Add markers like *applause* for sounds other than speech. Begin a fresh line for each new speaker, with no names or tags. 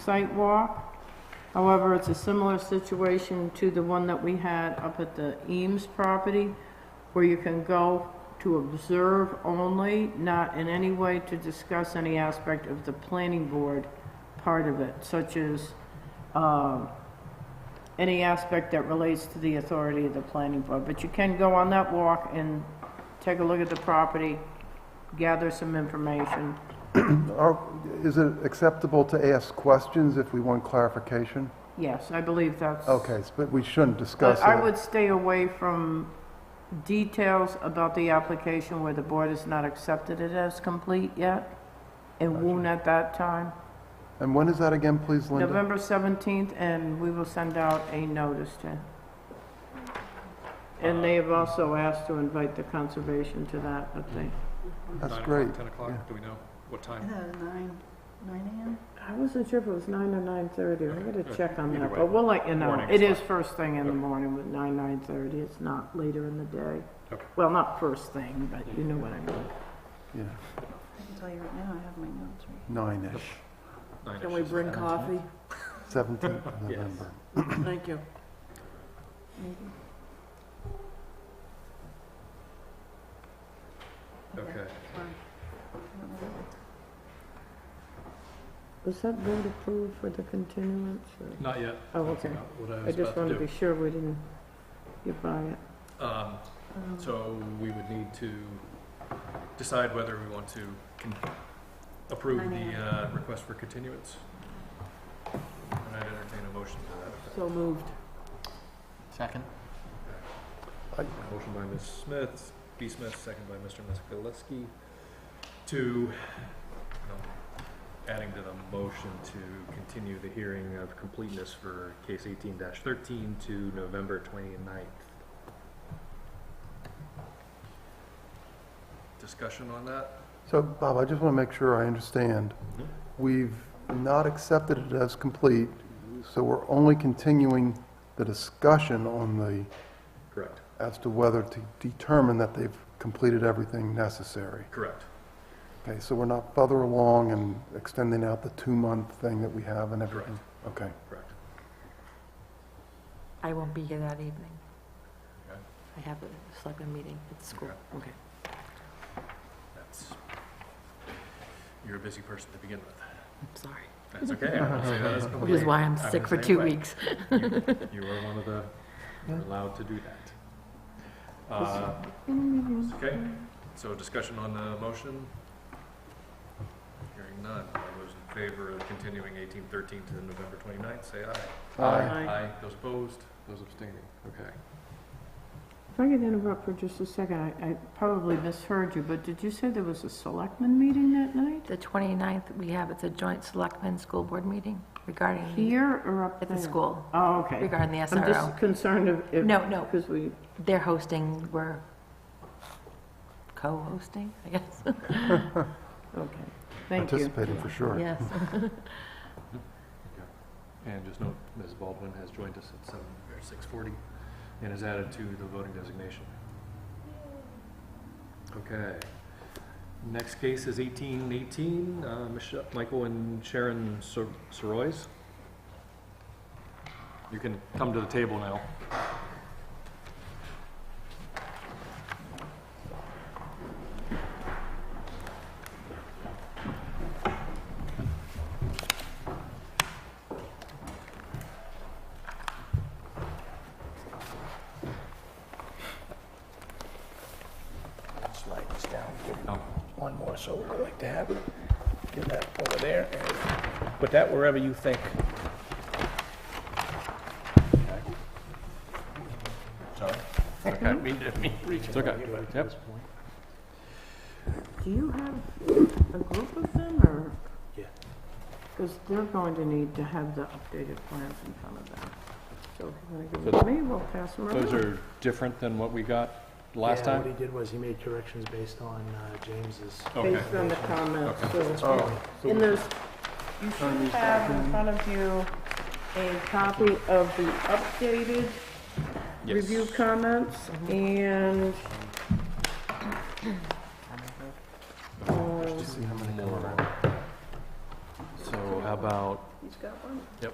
site walk. However, it's a similar situation to the one that we had up at the Eames property, where you can go to observe only, not in any way to discuss any aspect of the planning board part of it, such as, um, any aspect that relates to the authority of the planning board. But you can go on that walk and take a look at the property, gather some information.
Are- Is it acceptable to ask questions if we want clarification?
Yes, I believe that's.
Okay, s- but we shouldn't discuss
But I
it.
would stay away from details about the application where the board has not accepted it as complete yet. It won't at that time.
And when is that again, please, Linda?
November 17th, and we will send out a notice to. And they have also asked to invite the conservation to that, but they,
That's
Nine o'clock,
great,
Ten
yeah.
o'clock, do we know what
I
Uh-huh.
time?
thought it was nine, nine AM?
I wasn't sure if it was 9 or 9:30. I gotta check on
Uh, Either
that,
way,
but we'll let you know.
morning
It
is
is first thing in the morning with 9, 9:30. It's not later in the day.
Okay.
Well, not first thing, but you know what I mean.
yeah,
I can tell you right now, I have my notes right
nine-ish,
Nine-ish
Can we
is
bring
fine.
coffee?
17th of November.
Thank you.
here, maybe.
Okay,
I don't know.
Was that vote approved for the continuance? or-
not yet.
Oh,
That's
okay.
about What I
I
was
just
about
want
to
to be
do.
sure we didn't get by it.
Um,
Um,
so we would need to decide whether we want to con- approve the, uh, request for continuance. And I'd entertain a motion to that. effect.
So moved.
Second?
Motion by Ms. Smith, B. Smith, second by Mr. Miskalinsky, to, um, adding to the motion to continue the hearing of completeness for case eighteen thirteen to November twenty-ninth. Discussion on that?
So, Bob, I just want to make sure I understand.
Mhm.
We've not accepted it as complete, so we're only continuing the discussion on the,
Correct.
as to whether to determine that they've completed everything necessary.
Correct.
Okay, so we're not further along and extending out the two-month thing that we have and everything? Okay.
Correct.
I won't be here that evening.
Okay.
I have a selectmen meeting at school.
Okay. That's, you're a busy person to begin with.
I'm sorry.
That's okay. *laughs* I don't say that as a
Which is
complaint.
why I'm
I
sick
was
for
the
two
same way.
weeks.
You are one of the, you're allowed to do that. Uh, Okay, so discussion on the motion? Hearing none. All those in favor of continuing eighteen thirteen to November twenty-ninth, say aye.
Aye.
Aye.
Those opposed? Those abstaining? Okay.
If I could interrupt for just a second, I, I probably misheard you, but did you say there was a selectman meeting that night?
The 29th, we have, it's a joint selectmen school board meeting regarding, the-
Here or up
Mm-hmm. at
there?
the school,
Oh, okay.
regarding the
I'm just
SRO.
concerned if- if.
No, no.
Because we,
They're hosting, we're co-hosting, I guess.
okay, thank you.
Participating for sure.
Yes.
And just note, Ms. Baldwin has joined us at seven, or six forty, and is added to the voting designation. Okay. Next case is eighteen eighteen, uh, Michelle, Michael and Sharon Sor- Sorois. You can come to the table now.
Slide this down, give it
Oh,
one more, so we'd like to have it. Give that over there, and put that wherever you think. Sorry. I mean, didn't mean to reach
It's okay. Yep.
Do you have a group of them or?
Yeah.
Because they're going to need to have the updated plans in front of them. So if you want to give them to me, we'll pass them around.
Those are different than what we got last
Yeah,
time?
What he did was he made corrections based on uh, James's.
Okay.
based on the comments, so.
Oh, so
And there's, you should have in front of you a copy of the updated
Yes. Mm-hmm.
review comments and, um,
So how about
got one.